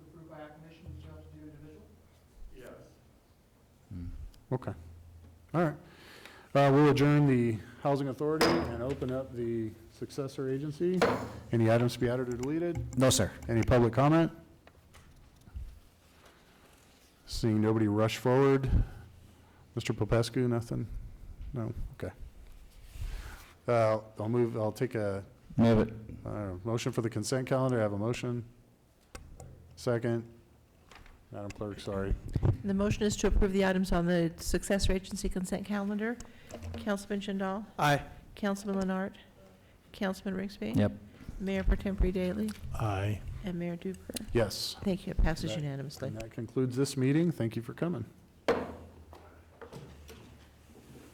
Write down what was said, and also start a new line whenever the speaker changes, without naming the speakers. Okay. All right. Uh, We'll adjourn the Housing Authority and open up the successor agency. Any items to be added or deleted?
No, sir.
Any public comment? Seeing nobody rush forward. Mr. Popescu, nothing? No? Okay. Uh, I'll move, I'll take a
Move it.
uh, motion for the consent calendar. I have a motion. Second. Madam Clerk, sorry.
The motion is to approve the items on the successor agency consent calendar. Councilman Jindal?
Aye.
Councilman Leonard? Councilman Rigsby?
Yep.
Mayor Per Tempore Daily?
Aye.
And Mayor Duper?
Yes.
Thank you. It passes
Right.
unanimously.
And that concludes this meeting. Thank you for coming.